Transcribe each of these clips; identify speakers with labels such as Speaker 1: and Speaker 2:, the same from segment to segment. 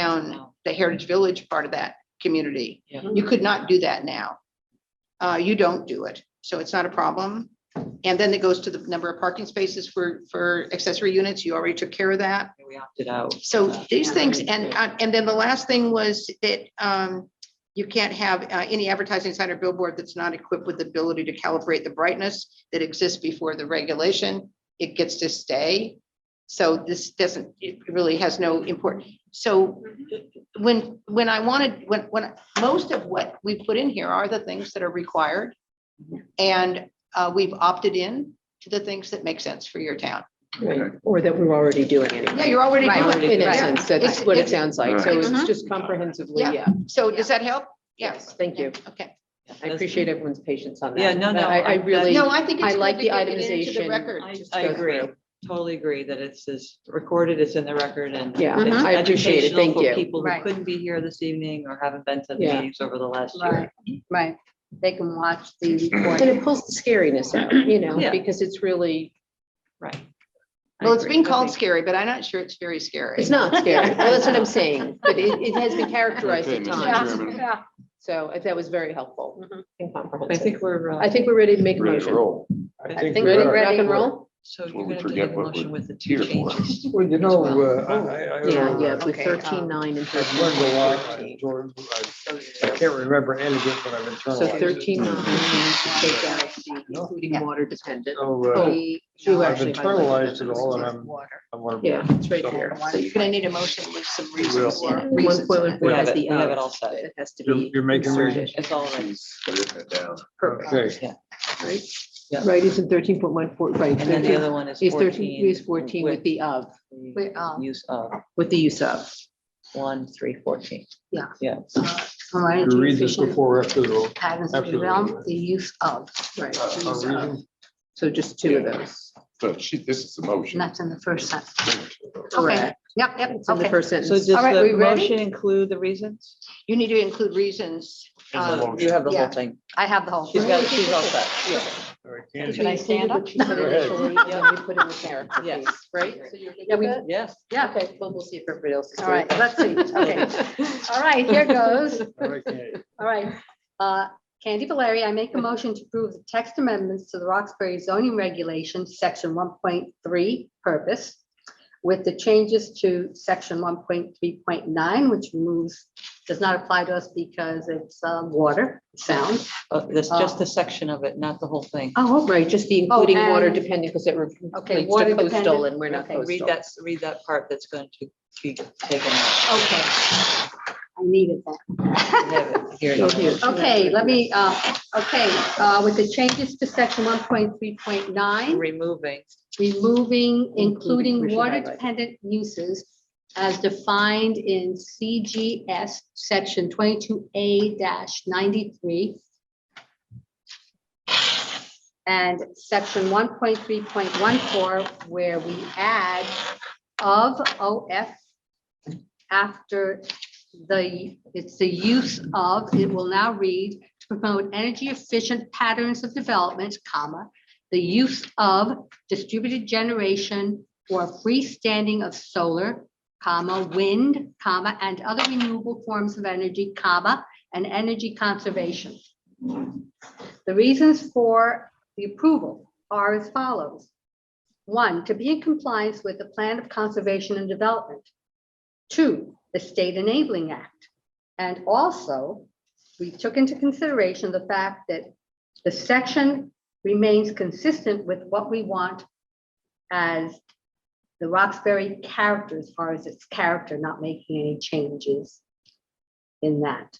Speaker 1: down the Heritage Village part of that community.
Speaker 2: Mm-hmm.
Speaker 3: Yeah.
Speaker 1: You could not do that now. Uh, you don't do it, so it's not a problem. And then it goes to the number of parking spaces for, for accessory units. You already took care of that.
Speaker 3: We opted out.
Speaker 1: So
Speaker 3: Uh,
Speaker 1: these
Speaker 3: yeah.
Speaker 1: things, and, uh, and then the last thing was that um, you can't have uh, any advertising sign or billboard that's not equipped with the ability to calibrate the brightness that exists before the regulation. It gets to stay. So this doesn't, it really has no import. So when, when I wanted, when, when, most of what we put in here are the things that are required. And uh, we've opted in to the things that make sense for your town.
Speaker 2: Right, Or that we're already doing anyway.
Speaker 1: Yeah, you're already
Speaker 3: Right.
Speaker 1: doing it.
Speaker 2: In
Speaker 3: Right.
Speaker 2: essence, that's
Speaker 1: It's-
Speaker 2: what it
Speaker 1: it's-
Speaker 2: sounds like. So it's
Speaker 1: Mhm.
Speaker 2: just comprehensively,
Speaker 1: Oh, Yeah.
Speaker 2: yeah.
Speaker 1: So does that help? Yes.
Speaker 2: Thank you.
Speaker 1: Okay.
Speaker 2: I appreciate everyone's patience on that.
Speaker 3: Yeah, no,
Speaker 2: But
Speaker 3: no,
Speaker 2: I, I
Speaker 3: I-
Speaker 2: really,
Speaker 1: No, I think it's
Speaker 2: I
Speaker 1: good
Speaker 2: like
Speaker 1: to
Speaker 2: the
Speaker 1: get it into the
Speaker 2: itemization.
Speaker 1: record.
Speaker 3: I-
Speaker 2: just
Speaker 3: I
Speaker 2: go
Speaker 3: agree,
Speaker 2: through.
Speaker 3: totally agree that it's is recorded, it's in the record and.
Speaker 2: yeah,
Speaker 1: Mhm.
Speaker 2: I appreciate it.
Speaker 3: educational
Speaker 2: Thank
Speaker 3: for
Speaker 2: you.
Speaker 3: People who
Speaker 4: Right.
Speaker 3: couldn't be here this evening or haven't been to
Speaker 2: Yeah.
Speaker 3: meetings over the last year.
Speaker 4: Right, right. They can watch the
Speaker 2: And
Speaker 4: recording.
Speaker 2: it pulls the scariness out, you know,
Speaker 3: Yeah.
Speaker 2: because it's really,
Speaker 3: Right. I
Speaker 1: Well, it's
Speaker 3: agree.
Speaker 1: been called
Speaker 3: Okay.
Speaker 1: scary, but I'm not sure it's very scary.
Speaker 2: it's not scary. Well, that's what I'm saying, but it, it has been characterized
Speaker 5: Okay,
Speaker 2: at
Speaker 5: Mr.
Speaker 2: times.
Speaker 5: Chairman.
Speaker 2: So that was very helpful and
Speaker 3: I
Speaker 2: comprehensive.
Speaker 3: think we're,
Speaker 2: I
Speaker 3: uh,
Speaker 2: think we're ready to make a
Speaker 5: Ready to
Speaker 2: motion.
Speaker 5: roll.
Speaker 3: I
Speaker 4: think
Speaker 2: Ready,
Speaker 4: we're
Speaker 2: rock
Speaker 4: ready.
Speaker 2: and roll?
Speaker 3: so you're
Speaker 5: Well, we
Speaker 3: gonna take
Speaker 5: forget
Speaker 3: a
Speaker 5: what we're
Speaker 3: motion with the two
Speaker 5: here for.
Speaker 3: changes.
Speaker 6: Well, you know,
Speaker 3: Well,
Speaker 6: uh, I, I. I-
Speaker 2: Yeah, yeah, with
Speaker 4: okay,
Speaker 2: thirteen
Speaker 4: um,
Speaker 2: nine and
Speaker 6: I've learned a lot, uh,
Speaker 2: thirteen.
Speaker 6: George, I I can't remember any of it, but I've
Speaker 2: So
Speaker 6: internalized it.
Speaker 2: thirteen nine, take out the
Speaker 6: No.
Speaker 2: including water dependent.
Speaker 6: So,
Speaker 2: Oh,
Speaker 6: uh,
Speaker 2: you
Speaker 6: I've
Speaker 2: actually highlighted
Speaker 6: internalized
Speaker 2: that.
Speaker 6: it all and I'm, I want to.
Speaker 2: Yeah, it's right there.
Speaker 1: So you're gonna need a motion with some
Speaker 6: will.
Speaker 1: reasons. for-
Speaker 2: One
Speaker 1: reasons
Speaker 2: point
Speaker 1: in
Speaker 2: one
Speaker 1: it.
Speaker 2: four
Speaker 3: We have
Speaker 2: has
Speaker 3: it-
Speaker 2: the
Speaker 3: we have it
Speaker 2: of,
Speaker 3: all set.
Speaker 2: It has to
Speaker 6: You're-
Speaker 2: be.
Speaker 6: you're making me-
Speaker 2: inserted.
Speaker 3: It's all right.
Speaker 6: Okay,
Speaker 2: Right,
Speaker 3: Yeah.
Speaker 2: right, it's in thirteen point one four, right.
Speaker 3: And then the other one is
Speaker 2: Is thirteen,
Speaker 3: fourteen.
Speaker 2: is fourteen with the of,
Speaker 4: With, um,
Speaker 3: Use of
Speaker 2: with the use of.
Speaker 3: one, three, fourteen.
Speaker 4: Yeah. Uh,
Speaker 3: Yeah.
Speaker 4: Commodity
Speaker 6: you read this
Speaker 4: efficient
Speaker 6: before or after the vote.
Speaker 4: Patents
Speaker 6: after the-
Speaker 4: develop the use of,
Speaker 2: Right.
Speaker 6: Uh,
Speaker 2: the
Speaker 6: a
Speaker 2: use of.
Speaker 6: reason-
Speaker 2: So just two of those.
Speaker 5: So she, this is the
Speaker 4: and
Speaker 5: motion.
Speaker 4: that's in the first sentence.
Speaker 2: Correct.
Speaker 4: Yep, yep,
Speaker 2: It's in the
Speaker 4: okay.
Speaker 2: first
Speaker 3: So does
Speaker 2: sentence.
Speaker 4: All right,
Speaker 3: the
Speaker 4: we ready?
Speaker 3: motion include the reasons?
Speaker 1: You need to include reasons.
Speaker 6: In the
Speaker 1: uh,
Speaker 6: motion.
Speaker 3: You have the
Speaker 4: Yeah.
Speaker 3: whole thing.
Speaker 4: I have the whole.
Speaker 3: She's got, she's all set.
Speaker 6: All right, Candy.
Speaker 2: Should
Speaker 4: I stand
Speaker 2: up? Yeah, we put in the character
Speaker 3: Yes.
Speaker 2: piece, right? So you're good
Speaker 4: Yeah, we-
Speaker 2: with that?
Speaker 3: Yes.
Speaker 4: Yeah,
Speaker 2: Okay, well, we'll see if everybody else. is
Speaker 4: all right,
Speaker 2: good.
Speaker 4: let's see, okay. All right, here goes.
Speaker 6: All right, Candy.
Speaker 4: All right, uh, Candy Valeri, I make a motion to approve the text amendments to the Roxbury zoning regulations, section one point three, purpose, with the changes to section one point three point nine, which moves, does not apply to us because it's uh, water, sound.
Speaker 3: Uh, That's just a section of it, not the whole thing.
Speaker 4: Oh,
Speaker 2: Right, just the including water
Speaker 4: and-
Speaker 2: dependent, because it relates
Speaker 4: Okay,
Speaker 2: to
Speaker 4: water
Speaker 2: coastal
Speaker 4: dependent.
Speaker 2: and we're not
Speaker 4: Okay,
Speaker 2: coastal.
Speaker 3: Read that, read that part that's going to be taken out.
Speaker 4: Okay. I needed
Speaker 3: You
Speaker 4: that.
Speaker 3: have it here.
Speaker 2: Go here.
Speaker 4: Okay, let me, uh, okay, uh, with the changes to section one point three point nine,
Speaker 3: Removing.
Speaker 4: removing,
Speaker 2: Including, we
Speaker 4: including
Speaker 2: should highlight.
Speaker 4: water-dependent uses as defined in CGS section twenty-two A ninety-three and section one point three point one four, where we add of OF after the, it's the use of, it will now read, to promote energy-efficient patterns of development, comma, the use of distributed generation or freestanding of solar, comma, wind, comma, and other renewable forms of energy, comma, and energy conservation. The reasons for the approval are as follows. One, to be in compliance with the Plan of Conservation and Development. Two, the State Enabling Act. And also, we took into consideration the fact that the section remains consistent with what we want as the Roxbury character, as far as its character, not making any changes in that.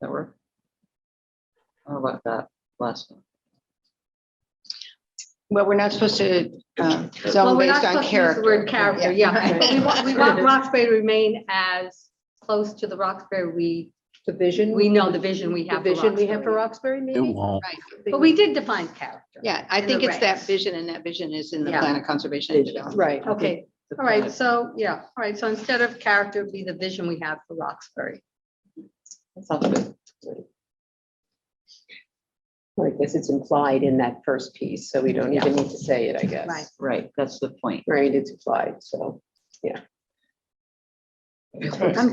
Speaker 3: That work? How about that last one?
Speaker 1: Well, we're not supposed to um,
Speaker 4: Well,
Speaker 1: zone
Speaker 4: we're
Speaker 1: based on
Speaker 4: not supposed to use the
Speaker 1: character.
Speaker 4: Word character, yeah. But We want, we want Roxbury to remain as close to the Roxbury we,
Speaker 2: The vision.
Speaker 4: we know the vision we
Speaker 2: The
Speaker 4: have. for
Speaker 2: vision we have for Roxbury,
Speaker 4: Roxbury.
Speaker 2: maybe?
Speaker 7: It won't.
Speaker 4: But we did define character.
Speaker 1: Yeah, I
Speaker 4: In the
Speaker 1: think it's that
Speaker 4: regs.
Speaker 1: vision and that vision is in the
Speaker 4: Yeah.
Speaker 1: plan of conservation and development.
Speaker 2: Right.
Speaker 4: Okay, all right, so, yeah, all right, so instead of character, it'd be the vision we have for Roxbury.
Speaker 3: Sounds good.
Speaker 2: I guess it's implied in that first piece, so we don't even need to say it, I guess.
Speaker 4: Right.
Speaker 3: Right, that's the point.
Speaker 2: Right, it's implied, so.
Speaker 6: I'm